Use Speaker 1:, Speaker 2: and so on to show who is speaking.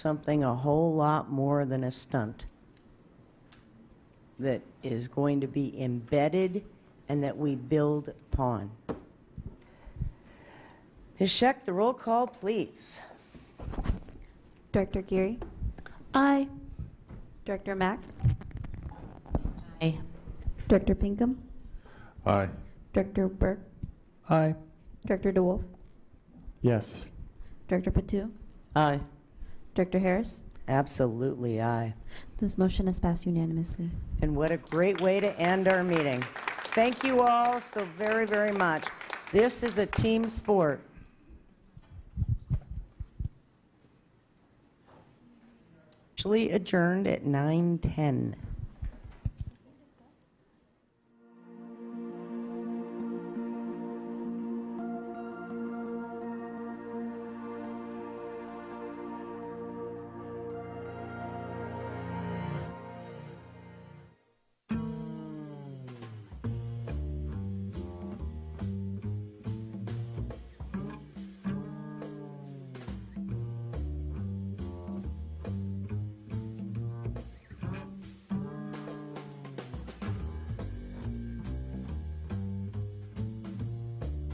Speaker 1: something a whole lot more than a stunt that is going to be embedded and that we build upon. Ms. Scheck, the roll call, please.
Speaker 2: Director Geary.
Speaker 3: Aye.
Speaker 2: Director Mack.
Speaker 3: Aye.
Speaker 2: Director Pinkham.
Speaker 4: Aye.
Speaker 2: Director Burke.
Speaker 4: Aye.
Speaker 2: Director DeWolf.
Speaker 4: Yes.
Speaker 2: Director Patu.
Speaker 1: Aye.
Speaker 2: Director Harris.
Speaker 1: Absolutely, aye.
Speaker 2: This motion is passed unanimously.
Speaker 1: And what a great way to end our meeting. Thank you all so very, very much. This is a team sport. Actually adjourned at 9:10.